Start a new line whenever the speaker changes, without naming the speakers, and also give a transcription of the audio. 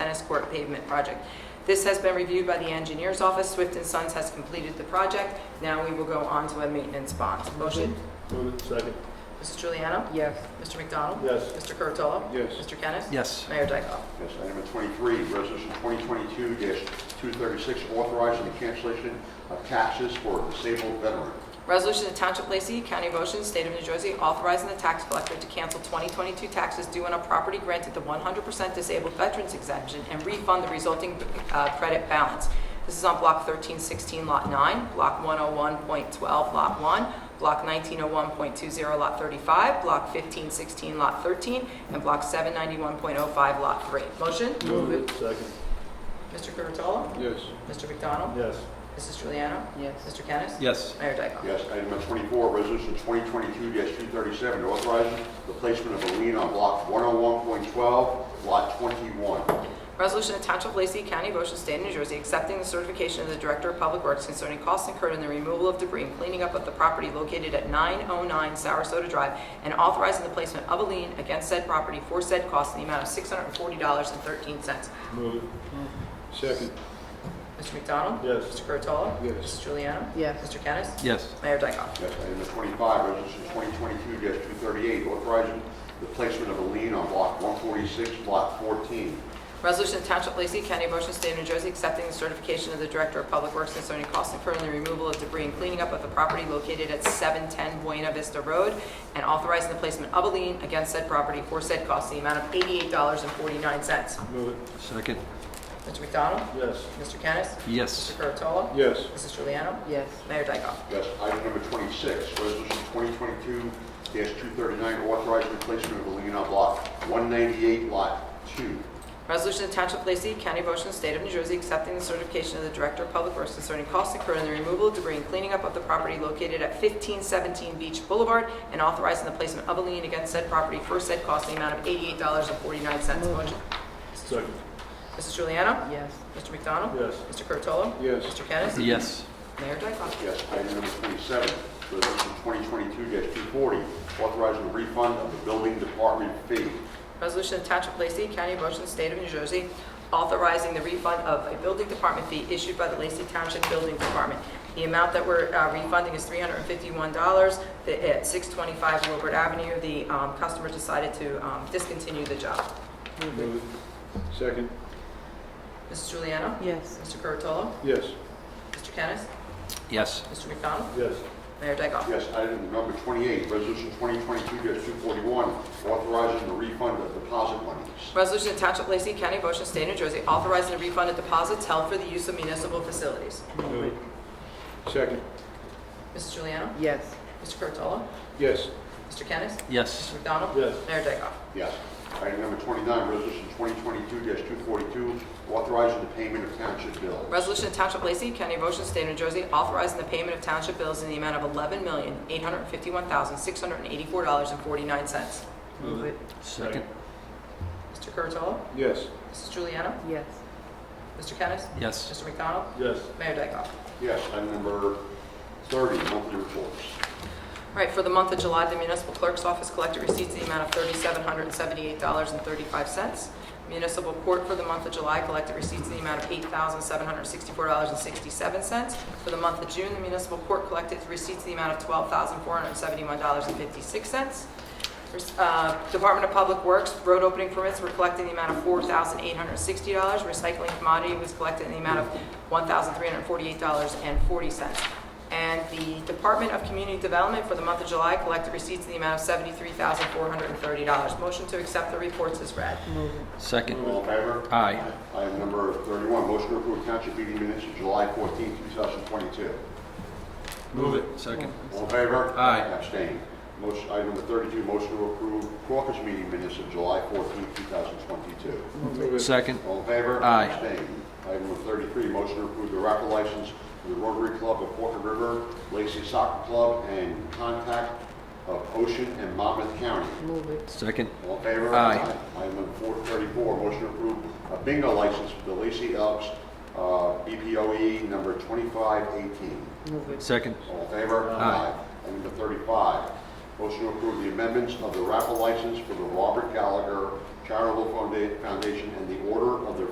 tennis court pavement project. This has been reviewed by the engineer's office. Swift and Sons has completed the project. Now we will go on to a maintenance bond. Motion,
Move it. Second.
Mrs. Juliana?
yes,
Mr. McDonald?
Yes.
Mr. Curatolo?
Yes.
Mr. Kennis?
yes,
Mayor Dyckoff?
Yes, item number 23, resolution 2022-236, authorizing the cancellation of taxes for disabled veteran.
Resolution to Township of Lacey, County of Ocean, State of New Jersey, authorizing the tax collector to cancel 2022 taxes due on a property granted the 100% disabled veterans exemption and refund the resulting uh, credit balance. This is on Block 1316, Lot 9, Block 101.12, Lot 1, Block 1901.20, Lot 35, Block 1516, Lot 13, and Block 791.05, Lot 3. Motion?
Move it. Second.
Mr. Curatolo?
Yes.
Mr. McDonald?
Yes.
Mrs. Juliana?
yes,
Mr. Kennis?
yes,
Mayor Dyckoff?
Yes, item number 24, resolution 2022-237, authorizing the placement of a lien on block 101.12, lot 21.
Resolution of Township of Lacey County, of Ocean State, of New Jersey, accepting the certification of the Director of Public Works concerning costs incurred in the removal of debris and cleaning up of the property located at 909 Sarasota Drive, and authorizing the placement of a lien against said property for said costs in the amount of $640.13.
Move it. Second.
Mr. McDonald?
Yes.
Mr. Curatolo?
Yes.
Mrs. Juliana?
yes,
Mr. Kennis?
yes,
Mayor Dyckoff?
Yes, item number 25, resolution 2022-238, authorizing the placement of a lien on block 146, lot 14.
Resolution of Township of Lacey County, of Ocean State, of New Jersey, accepting the certification of the Director of Public Works concerning costs incurred in the removal of debris and cleaning up of the property located at 710 Buena Vista Road, and authorizing the placement of a lien against said property for said costs in the amount of $88.49. Mr.
Move it.
second,
McDonald?
Yes.
Mr. Kennis? Mr.
yes,
Curatolo?
Yes.
Mrs. Juliana?
yes,
Mayor Dyckoff?
Yes, item number 26, resolution 2022-239, authorizing the placement of a lien on block 198, lot 2.
Resolution of Township of Lacey, County of Ocean, State of New Jersey, accepting the certification of the Director of Public Works concerning costs incurred in the removal of debris and cleaning up of the property located at 1517 Beach Boulevard, and authorizing the placement of a lien against said property for said cost in the amount of $88.49. Motion.
Second.
Mrs. Juliana?
yes,
Mr. McDonald?
Yes.
Mr. Curatolo?
Yes.
Mr. Kennis?
yes,
Mayor Dyckoff?
Yes, item number 27, resolution 2022-240, authorizing the refund of the building department fee.
Resolution of Township of Lacey, County of Ocean, State of New Jersey, authorizing the refund of a building department fee issued by the Lacey Township Building Department. The amount that we're uh, refunding is $351 The- at 625 Wilbert Avenue. The um, customer decided to um, discontinue the job.
Move it. Second.
Mrs. Juliana?
yes,
Mr. Curatolo?
Yes.
Mr. Kennis?
yes,
Mr. McDonald?
Yes.
Mayor Dyckoff?
Yes, item number 28, resolution 2022-241, authorizing the refund of deposit monies.
Resolution of Township of Lacey, County of Ocean, State of New Jersey, authorizing the refund of deposits held for the use of municipal facilities.
Move it. Second.
Mrs. Juliana?
yes,
Mr. Curatolo?
Yes.
Mr. Kennis?
yes,
Mr. McDonald?
Yes.
Mayor Dyckoff?
Yes. Item number 29, resolution 2022-242, authorizing the payment of township bills.
Resolution of Township of Lacey, County of Ocean, State of New Jersey, authorizing the payment of township bills in the amount of eleven million, eight hundred fifty-one thousand, six hundred eighty-four dollars and forty-nine cents.
move it,
second,
Mr. Curatolo?
Yes.
Mrs. Juliana?
yes,
Mr. Kennis?
yes,
Mr. McDonald?
Yes.
Mayor Dyckoff?
Yes, item number 30, monthly reports.
All right, for the month of July, the municipal clerk's office collected receipts in the amount of $3,778.35. Municipal court for the month of July collected receipts in the amount of $8,764.67. For the month of June, the municipal court collected receipts in the amount of $12,471.56. Uh, Department of Public Works, road opening permits were collected in the amount of $4,860. Recycling commodity was collected in the amount of $1,348.40. And the Department of Community Development for the month of July collected receipts in the amount of $73,430. Motion to accept the reports is read.
move it,
second,
All in favor?
Aye.
Item number 31, motion to approve township meeting minutes of July 14, 2022.
move it, second,
All in favor?
Aye.
Abstain. Motion, item number 32, motion to approve caucus meeting minutes of July 14, 2022.
Move it.
second,
All in favor?
Aye.
Abstain. Item number 33, motion to approve the raffle license for the Rotary Club of Forked River, Lacey Soccer Club, and Contact of Ocean and Monmouth County.
move it,
second,
All in favor?
Aye.
Item number 434, motion to approve a bingo license for the Lacey Elks uh, BPOE E number 2518.
move it,
second,
All in favor?
Aye.
Item number 35, motion to approve the amendments of the raffle license for the Robert Gallagher Charitable Founda- Foundation and the Order of the